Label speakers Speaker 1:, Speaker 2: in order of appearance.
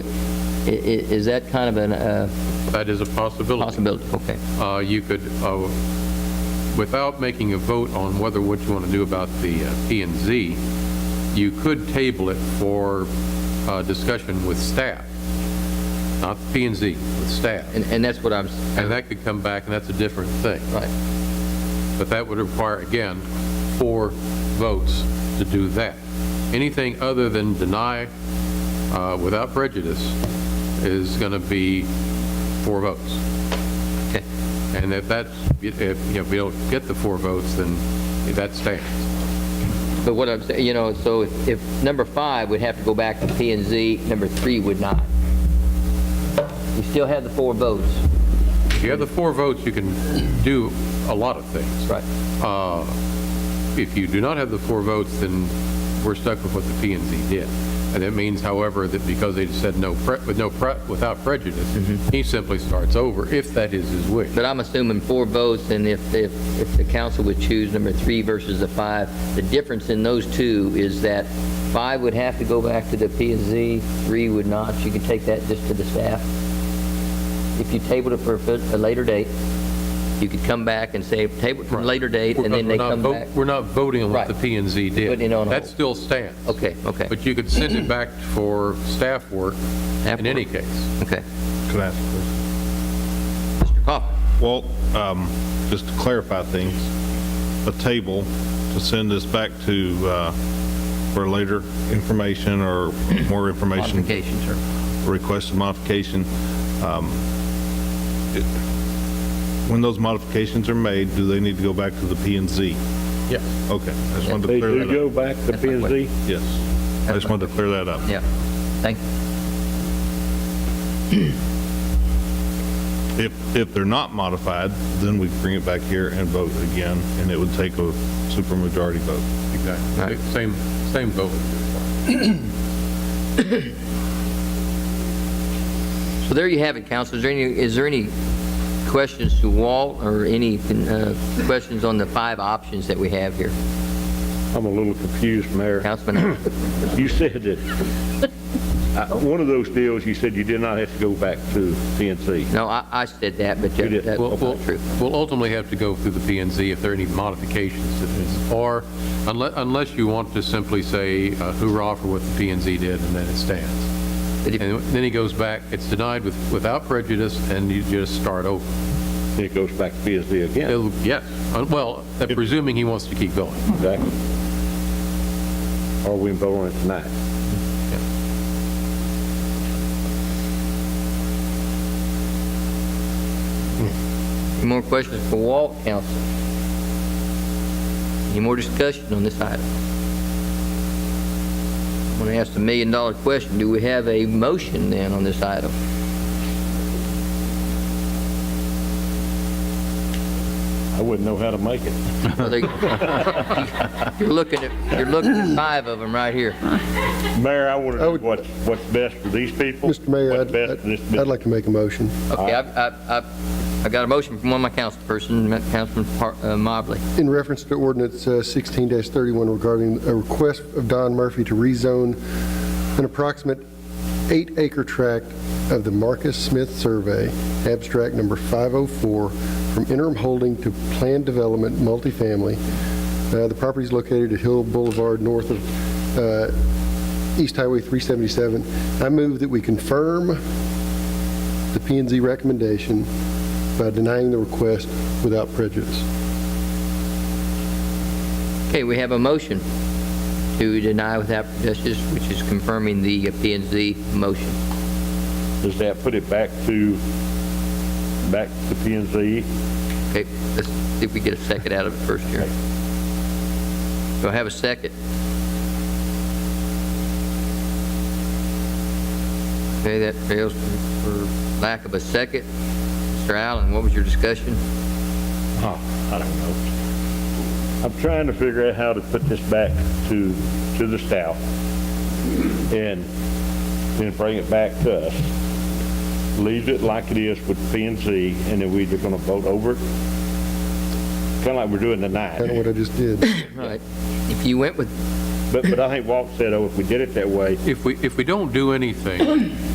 Speaker 1: i- i- is that kind of an, uh,
Speaker 2: That is a possibility.
Speaker 1: possibility? Okay.
Speaker 2: Uh, You could, uh, without making a vote on whether, what you want to do about the uh, P and Z, you could table it for uh, discussion with staff, not the P and Z, with staff.
Speaker 1: And, and that's what I'm, s-
Speaker 2: And that could come back, and that's a different thing.
Speaker 1: right.
Speaker 2: But that would require, again, four votes to do that. Anything other than deny uh, without prejudice is going to be four votes.
Speaker 1: Okay.
Speaker 2: And if that's, if, you know, if we don't get the four votes, then that stands.
Speaker 1: But what I'm saying, you know, so if, if number five would have to go back to P and Z, number three would not. You still have the four votes.
Speaker 2: If you have the four votes, you can do a lot of things.
Speaker 1: Right.
Speaker 2: Uh, If you do not have the four votes, then we're stuck with what the P and Z did. And that means, however, that because they said no, pre- with no, pre- without
Speaker 1: Mm-hmm.
Speaker 2: prejudice, he simply starts over, if that is his wish.
Speaker 1: But I'm assuming four votes, and if, if, if the council would choose number three versus the five, the difference in those two is that five would have to go back to the P and Z, three would not. You could take that just to the staff. If you tabled it for a fit- a later date, you could come back and say, table it for a later date, and then they
Speaker 2: Because we're
Speaker 1: come
Speaker 2: not vo-
Speaker 1: back.
Speaker 2: We're not voting on
Speaker 1: Right.
Speaker 2: what the P and Z did.
Speaker 1: Putting it on
Speaker 2: That
Speaker 1: hold.
Speaker 2: still stands.
Speaker 1: Okay, okay,
Speaker 2: But you could send it back for staff work
Speaker 1: Staff
Speaker 2: in any
Speaker 1: work.
Speaker 2: case.
Speaker 1: okay.
Speaker 3: Can I ask a question?
Speaker 1: Mr. Coffin?
Speaker 3: Well, um, just to clarify things, a table to send this back to, uh, for later information or more information,
Speaker 1: Modification, sir.
Speaker 3: request a modification. um, it- When those modifications are made, do they need to go back to the P and Z?
Speaker 2: Yeah.
Speaker 3: Okay, I just wanted to
Speaker 4: They
Speaker 3: clear
Speaker 4: do
Speaker 3: that up.
Speaker 4: go back to
Speaker 1: That's
Speaker 4: P
Speaker 1: my
Speaker 4: and Z?
Speaker 3: Yes, I just wanted to clear that up.
Speaker 1: Yeah, thank you.
Speaker 3: If, if they're not modified, then we bring it back here and vote again, and it would take a supermajority vote.
Speaker 2: Exactly. Same, same vote.
Speaker 1: So there you have it, council. Is there any, is there any questions to Walt or any uh, questions on the five options that we have here?
Speaker 4: I'm a little confused, Mayor.
Speaker 1: Councilman,
Speaker 4: You said that, uh, one of those deals, you said you did not have to go back to P and Z.
Speaker 1: no, I, I said that, but
Speaker 4: You
Speaker 1: that-
Speaker 4: did.
Speaker 1: that's
Speaker 2: We'll-
Speaker 1: not
Speaker 2: we'll-
Speaker 1: true.
Speaker 2: We'll ultimately have to go through the P and Z if there are any modifications to this, or unless, unless you want to simply say uh, hurrah for what the P and Z did, and then it stands.
Speaker 1: But if-
Speaker 2: And then he goes back, it's denied with, without prejudice, and you just start over.
Speaker 4: Then it goes back to P and Z again.
Speaker 2: It'll- Yes, Uh, well, presuming he wants to keep going.
Speaker 4: Exactly. Are we voting it tonight?
Speaker 1: Any more questions for Walt, council? Any more discussion on this item? I'm going to ask the million dollar question. Do we have a motion then on this item?
Speaker 4: I wouldn't know how to make it.
Speaker 1: Well, they- You're looking at, you're looking at five of them right here.
Speaker 4: Mayor, I want to
Speaker 5: I
Speaker 4: know
Speaker 5: would-
Speaker 4: what's, what's best for these people.
Speaker 5: Mr. Mayor,
Speaker 4: What's
Speaker 5: I'd-
Speaker 4: best for this
Speaker 5: I'd I'd
Speaker 4: business.
Speaker 5: like to make a motion.
Speaker 1: Okay, I've, I've- I've, I've got a motion from one of my councilperson, Councilman Par- uh, Mobley.
Speaker 5: In reference to ordinance uh, 16-31 regarding a request of Don Murphy to rezone an approximate eight-acre tract of the Marcus Smith Survey, abstract number 504, from interim holding to planned development multifamily. Uh, The property is located at Hill Boulevard, north of uh, East Highway 377. I move that we confirm the p and Z recommendation by denying the request without prejudice.
Speaker 1: Okay, we have a motion to deny without prejudice, which is confirming the P and Z motion.
Speaker 4: Does that put it back to, back to P and Z?
Speaker 1: Okay, let's see if we get a second out of it first here. Do I have a second? Okay, that fails for for lack of a second. Mr. Allen, what was your discussion?
Speaker 4: Huh, Oh, I don't know. I'm trying to figure out how to put this back to, to the staff and then bring it back to us. Leave it like it is with P and Z, and then we're just gonna vote over it. Kinda like we're doing
Speaker 5: Kind of
Speaker 4: tonight.
Speaker 5: what I just did.
Speaker 1: All right, if you went with
Speaker 4: But, but I think Walt said, oh, if we did it that way,
Speaker 2: If we, if we don't do anything,